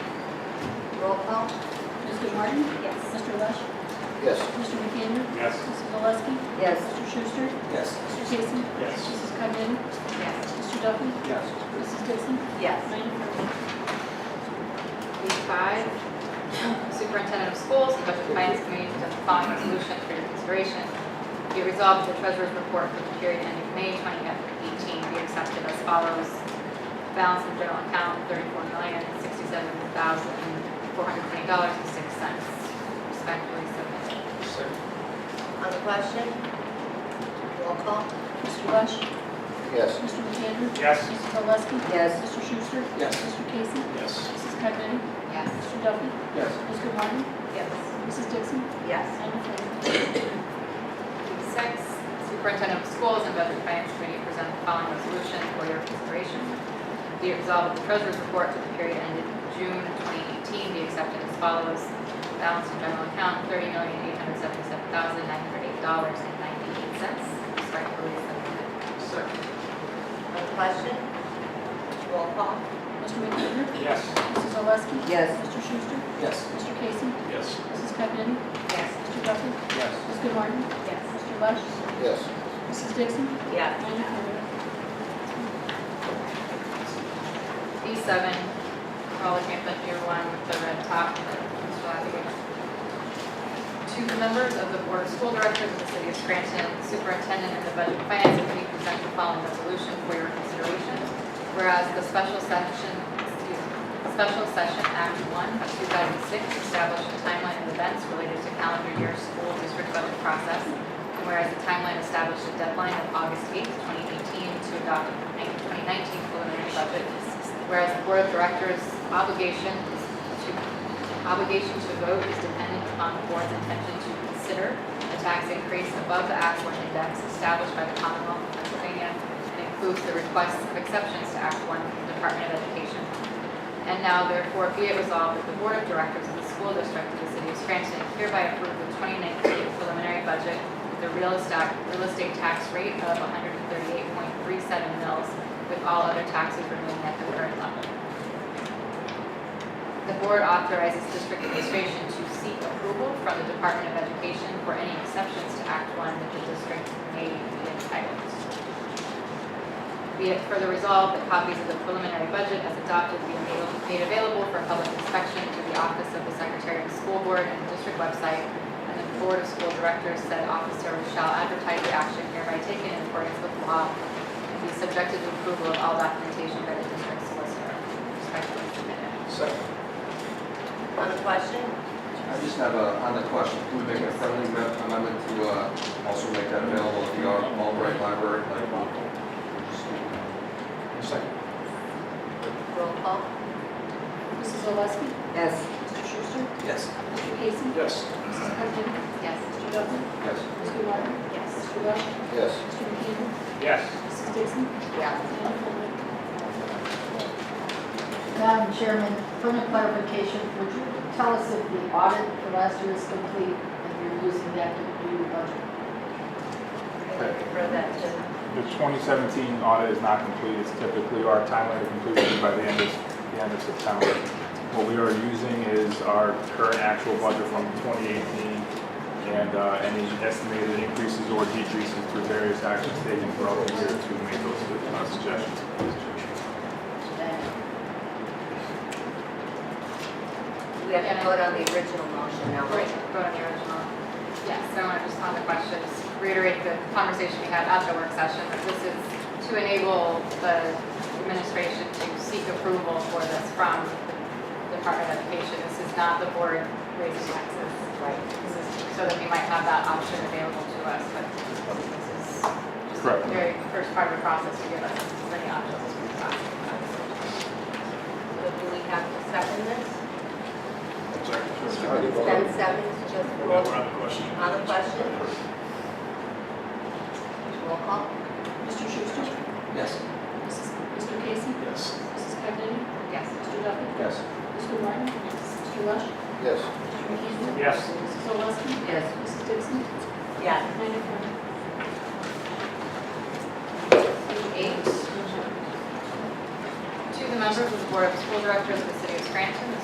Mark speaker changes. Speaker 1: call.
Speaker 2: Ms. Martin?
Speaker 1: Yes.
Speaker 2: Mr. Lush?
Speaker 3: Yes.
Speaker 2: Mr. McAndrew?
Speaker 4: Yes.
Speaker 2: Mrs. Oleski?
Speaker 1: Yes.
Speaker 2: Mr. Schuster?
Speaker 3: Yes.
Speaker 2: Mr. Casey?
Speaker 4: Yes.
Speaker 2: Mrs. Cuddy?
Speaker 1: Yes.
Speaker 2: Mr. Duffy?
Speaker 3: Yes.
Speaker 2: Mrs. Dixon?
Speaker 1: Yes.
Speaker 2: Madam Clerk?
Speaker 1: B5, Superintendent of Schools, and Budget Finance Committee to the following resolution for your consideration. Be resolved that the treasurer's report for the period ending May 2018 be accepted as follows. Balance in general account, $34,067,420.06, respectfully submitted.
Speaker 3: Second.
Speaker 5: On the question? Roll call?
Speaker 2: Mr. Lush?
Speaker 3: Yes.
Speaker 2: Mr. McAndrew?
Speaker 4: Yes.
Speaker 2: Mrs. Oleski?
Speaker 5: Yes.
Speaker 2: Mr. Schuster?
Speaker 3: Yes.
Speaker 2: Mr. Casey?
Speaker 4: Yes.
Speaker 2: Mrs. Cuddy?
Speaker 1: Yes.
Speaker 2: Mr. Duffy?
Speaker 3: Yes.
Speaker 2: Mr. Martin?
Speaker 1: Yes.
Speaker 2: Mrs. Dixon?
Speaker 5: Yes.
Speaker 2: Madam Clerk?
Speaker 1: Six, Superintendent of Schools and Budget Finance Committee present the following resolution for your consideration. Be it resolved that the Treasurer's report for the period ended June 2018 be accepted as follows. Balance in general account, $30,877,908.98, respectively submitted.
Speaker 3: Second.
Speaker 5: On the question? Roll call?
Speaker 2: Mr. McAndrew?
Speaker 4: Yes.
Speaker 2: Mrs. Oleski?
Speaker 5: Yes.
Speaker 2: Mr. Schuster?
Speaker 3: Yes.
Speaker 2: Mr. Casey?
Speaker 4: Yes.
Speaker 2: Mrs. Cuddy?
Speaker 1: Yes.
Speaker 2: Mr. Duffy?
Speaker 3: Yes.
Speaker 2: Mr. Martin?
Speaker 1: Yes.
Speaker 2: Mr. Lush?
Speaker 3: Yes.
Speaker 2: Mrs. Dixon?
Speaker 5: Yes.
Speaker 2: Madam Clerk?
Speaker 1: B7, Corolla Campus Year 1 with the red top, Mr. Labia. To the members of the Board of School Directors of the City of Scranton, Superintendent and the Budget and Finance Committee present the following resolution for your consideration. Whereas the special session, excuse me, Special Session Act 1 of 2006 established a timeline of events related to calendar year school district budget process. And whereas the timeline established a deadline of August 8, 2018 to adopt the 2019 preliminary budget. Whereas the Board of Directors' obligation is to obligation to vote is dependent upon the board's intention to consider a tax increase above the Act 1 index established by the Commonwealth of Pennsylvania and includes the requests of exceptions to Act 1 from the Department of Education. And now therefore be it resolved that the Board of Directors of the School District of the City of Scranton hereby approve the 2019 preliminary budget with a real estate, real estate tax rate of 138.37 mils with all other taxes remaining at the current level. The board authorizes district administration to seek approval from the Department of Education for any exceptions to Act 1 that the district may be entitled. Be it further resolved that copies of the preliminary budget as adopted be made- made available for public inspection to the Office of the Secretary of the School Board and the district website, and the Board of School Directors said officer shall advertise the action hereby taken in accordance with law and be subjected to approval of all documentation by the district solicitor. Respectfully submitted.
Speaker 3: Second.
Speaker 5: On the question?
Speaker 6: I just have a, on the question, can we make a friendly amend- amendment to uh, also make that available at the Al- Albright Library? like, uh,
Speaker 3: Second.
Speaker 5: Roll call?
Speaker 2: Mrs. Oleski?
Speaker 5: Yes.
Speaker 2: Mr. Schuster?
Speaker 3: Yes.
Speaker 2: Mr. Casey?
Speaker 4: Yes.
Speaker 2: Mrs. Cuddy?
Speaker 1: Yes.
Speaker 2: Mr. Duffy?
Speaker 6: Yes.
Speaker 2: Mr. Martin?
Speaker 5: Yes.
Speaker 2: Mr. Lush?
Speaker 3: Yes.
Speaker 2: Mr. McAndrew?
Speaker 4: Yes.
Speaker 2: Mrs. Dixon?
Speaker 1: Yes.
Speaker 2: Madam Clerk?
Speaker 7: Madam Chairman, from a clarification, would you tell us if the audit for last year is complete and you're using that to do your budget?
Speaker 5: I'd refer that to,
Speaker 4: The 2017 audit is not complete. It's typically our timeline to complete is by the end of, the end of September. What we are using is our current actual budget from 2018 and uh, any estimated increases or decreases through various actions taken throughout the year to make those uh, suggestions.
Speaker 7: Thank you.
Speaker 5: we have to vote on the original motion now,
Speaker 1: Right,
Speaker 5: right?
Speaker 1: vote on the original. Yes, so I just on the question, just reiterate the conversation we had at the work session, that this is to enable the administration to seek approval for this from the Department of Education. This is not the board raising taxes.
Speaker 5: Right.
Speaker 1: This is so that we might have that option available to us, but this is just
Speaker 4: Correct.
Speaker 1: the very first part of the process to give us as many options as we possibly can.
Speaker 5: So do we have to second this?
Speaker 3: How do you vote?
Speaker 5: Then seven, just roll. On the question? Roll call?
Speaker 2: Mr. Schuster?
Speaker 3: Yes.
Speaker 2: Mrs. Mr. Casey?
Speaker 4: Yes.
Speaker 2: Mrs. Cuddy?
Speaker 1: Yes.
Speaker 2: Mr. Duffy?
Speaker 3: Yes.
Speaker 2: Mr. Martin? Mr. Lush?
Speaker 3: Yes.
Speaker 2: Mr. McAndrew?
Speaker 4: Yes.
Speaker 2: Mrs. Oleski?
Speaker 5: Yes.
Speaker 2: Mrs. Dixon?
Speaker 5: Yes.
Speaker 2: Madam Clerk?
Speaker 1: Eight. To the members of the Board of School Directors of the City of Scranton, the